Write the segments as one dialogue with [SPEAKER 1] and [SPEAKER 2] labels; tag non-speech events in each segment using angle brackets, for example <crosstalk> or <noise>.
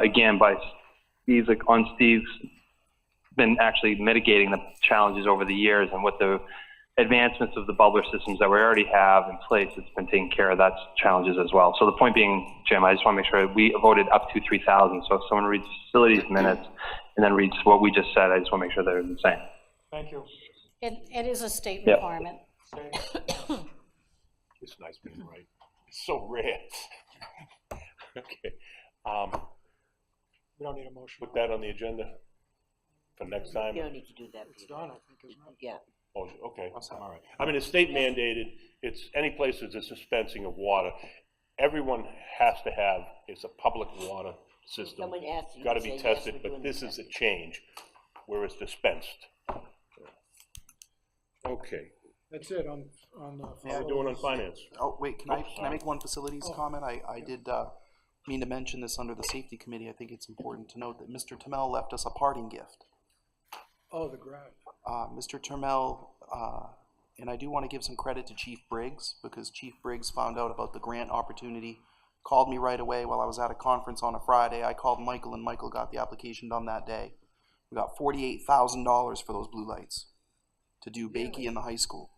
[SPEAKER 1] again by Steve's on Steve's been actually mitigating the challenges over the years and with the advancements of the bubbler systems that we already have in place, it's been taking care of that challenges as well. So the point being, Jim, I just want to make sure we voted up to 3,000. So if someone reads facilities minutes and then reads what we just said, I just want to make sure they're the same.
[SPEAKER 2] Thank you.
[SPEAKER 3] It, it is a state
[SPEAKER 1] Yeah.
[SPEAKER 3] requirement.
[SPEAKER 2] Okay.
[SPEAKER 4] It's nice being right. It's so rare. <laughs> Okay, um,
[SPEAKER 2] We don't need a motion.
[SPEAKER 4] put that on the agenda for next time.
[SPEAKER 5] You don't need to do that,
[SPEAKER 2] It's
[SPEAKER 5] Peter.
[SPEAKER 2] done, I think, isn't it?
[SPEAKER 5] Yeah,
[SPEAKER 4] Oh, Okay, all right. I mean, it's state mandated, it's any place that's a dispensing of water. Everyone has to have, it's a public water system.
[SPEAKER 5] Someone asks you,
[SPEAKER 4] Got to
[SPEAKER 5] you
[SPEAKER 4] be
[SPEAKER 5] say, yes,
[SPEAKER 4] tested,
[SPEAKER 5] we're
[SPEAKER 4] but
[SPEAKER 5] doing the
[SPEAKER 4] this is a change where it's dispensed. Okay,
[SPEAKER 2] That's it on, on the.
[SPEAKER 4] how are we doing on finance?
[SPEAKER 6] Oh, wait, can I, can I make one facilities
[SPEAKER 2] Oh.
[SPEAKER 6] comment? I, I did, uh, mean to mention this under the safety committee. I think it's important to note that Mr. Tamel left us a parting gift.
[SPEAKER 2] Oh, the grant.
[SPEAKER 6] Uh, Mr. Tamel, uh, and I do want to give some credit to Chief Briggs, because Chief Briggs found out about the grant opportunity, called me right away while I was at a conference on a Friday. I called Michael, and Michael got the application done that day. We got forty-eight thousand dollars for those blue lights to do Bakey in the high school.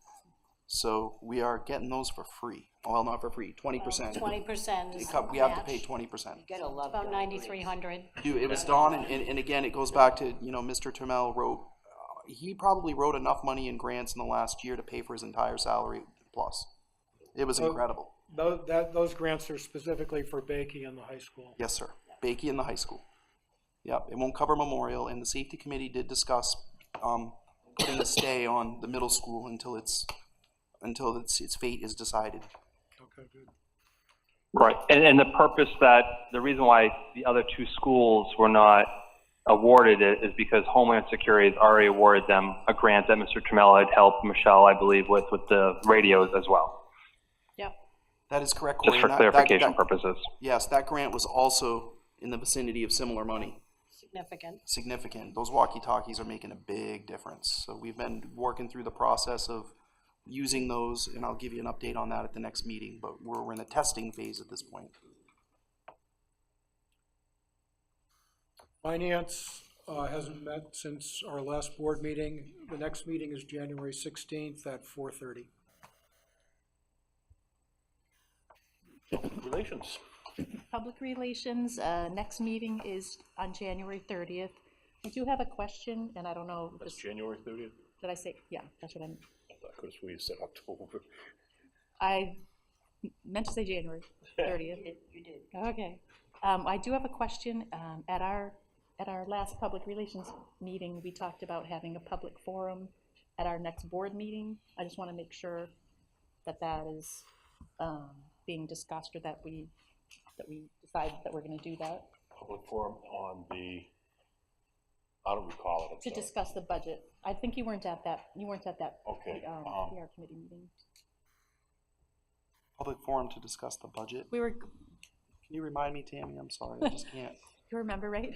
[SPEAKER 6] So we are getting those for free. Well, not for free, twenty percent.
[SPEAKER 3] Twenty percent is
[SPEAKER 6] We have to pay
[SPEAKER 3] match.
[SPEAKER 6] twenty percent.
[SPEAKER 5] You gotta love.
[SPEAKER 3] About
[SPEAKER 5] Don
[SPEAKER 3] ninety-three
[SPEAKER 5] Briggs.
[SPEAKER 3] hundred.
[SPEAKER 6] Dude, it was Don, and, and, and again, it goes back to, you know, Mr. Trammell wrote, uh, he probably wrote enough money in grants in the last year to pay for his entire salary plus. It was
[SPEAKER 2] Oh.
[SPEAKER 6] incredible.
[SPEAKER 2] Those, that, those grants are specifically for baking in the high school.
[SPEAKER 6] Yes, sir. Bakey in the high school. Yep, it won't cover Memorial, and the safety committee did discuss, um, putting a stay on the middle school until it's, until its, its fate is decided.
[SPEAKER 2] Okay, good.
[SPEAKER 1] Right, and, and the purpose that, the reason why the other two schools were not awarded it is because Homeland Security has already awarded them a grant that Mr. Trammell had helped Michelle, I believe, with, with the radios as well,
[SPEAKER 3] Yep.
[SPEAKER 6] That is correct, Corey.
[SPEAKER 1] just for
[SPEAKER 6] and that- that-
[SPEAKER 1] clarification
[SPEAKER 6] that-
[SPEAKER 1] purposes.
[SPEAKER 6] Yes, that grant was also in the vicinity of similar money.
[SPEAKER 3] Significant.
[SPEAKER 6] significant. Those walkie-talkies are making a big difference. So we've been working through the process of using those, and I'll give you an update on that at the next meeting, but we're, we're in the testing phase at this point.
[SPEAKER 2] Finance uh, hasn't met since our last board meeting. The next meeting is January 16th at 4:30.
[SPEAKER 4] Relations.
[SPEAKER 7] Public Relations, uh, next meeting is on January 30th. I do have a question, and I don't know,
[SPEAKER 4] That's
[SPEAKER 7] just-
[SPEAKER 4] January 30th?
[SPEAKER 7] did I say, yeah, that's what I meant.
[SPEAKER 4] I could have sworn you said October.
[SPEAKER 7] I meant to
[SPEAKER 4] <laughs>
[SPEAKER 7] say January 30th. You did. Okay. Um, I do have a question. Um, At our, at our last Public Relations meeting, we talked about having a public forum at our next board meeting. I just want to make sure that that is um, being discussed or that we, that we decide that we're going to do that.
[SPEAKER 4] Public forum on the, I don't recall it,
[SPEAKER 7] to
[SPEAKER 4] I'm sorry.
[SPEAKER 7] discuss the budget. I think you weren't at that, you weren't at that
[SPEAKER 4] Okay,
[SPEAKER 7] um,
[SPEAKER 4] um,
[SPEAKER 7] PR committee meeting.
[SPEAKER 6] Public forum to discuss the budget.
[SPEAKER 7] We were, you
[SPEAKER 6] Can you remind me, Tammy? I'm sorry, I just can't.
[SPEAKER 7] remember, right?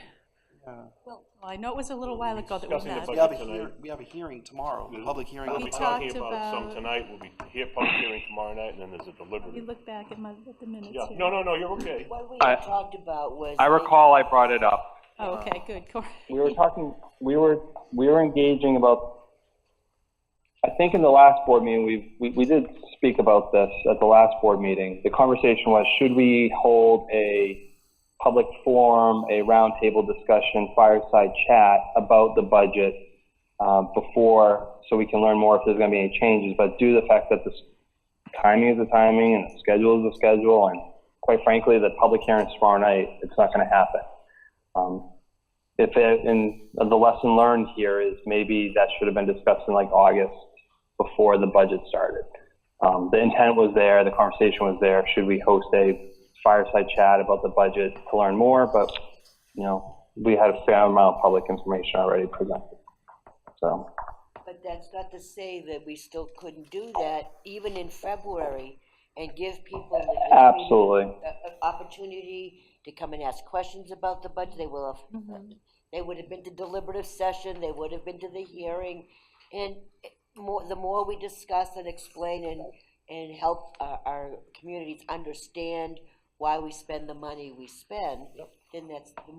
[SPEAKER 6] Yeah.
[SPEAKER 7] Well, I know it was a little while ago that we
[SPEAKER 4] discussing the
[SPEAKER 7] met.
[SPEAKER 6] We have a
[SPEAKER 4] Tonight.
[SPEAKER 6] hear, we have a hearing tomorrow, a public hearing
[SPEAKER 4] We'll
[SPEAKER 6] on
[SPEAKER 4] be
[SPEAKER 6] the
[SPEAKER 7] We
[SPEAKER 4] talking
[SPEAKER 7] talked
[SPEAKER 4] about some
[SPEAKER 7] about-
[SPEAKER 4] tonight, we'll be here, public hearing tomorrow night, and then there's a
[SPEAKER 7] We
[SPEAKER 4] deliberative.
[SPEAKER 7] look back at my, at the minutes.
[SPEAKER 4] Yeah,
[SPEAKER 7] here.
[SPEAKER 4] no, no, no, you're okay.
[SPEAKER 5] What we
[SPEAKER 1] I-
[SPEAKER 5] had talked about was.
[SPEAKER 1] I recall I brought it up.
[SPEAKER 7] Oh, okay, good, Corey.
[SPEAKER 1] We were talking, we were, we were engaging about, I think in the last board meeting, we, we, we did speak about this at the last board meeting. The conversation was, should we hold a public forum, a roundtable discussion, fireside chat about the budget, um, before, so we can learn more if there's gonna be any changes, but due to the fact that this timing is the timing and the schedule is the schedule, and quite frankly, the public hearing's tomorrow night, it's not gonna happen. Um, if it, and the lesson learned here is maybe that should have been discussed in like August before the budget started. Um, the intent was there, the conversation was there. Should we host a fireside chat about the budget to learn more? But you know, we had a fair amount of public information already presented. So
[SPEAKER 5] But that's not to say that we still couldn't do that even in February and give people. the- the
[SPEAKER 1] absolutely,
[SPEAKER 5] a- a- Opportunity to come and ask questions about the budget. They will have, they would have been to deliberative session, they would have been to the hearing. And it- more, the more we discuss and explain and, and help our, our communities understand why we spend the money we spend, then that's, the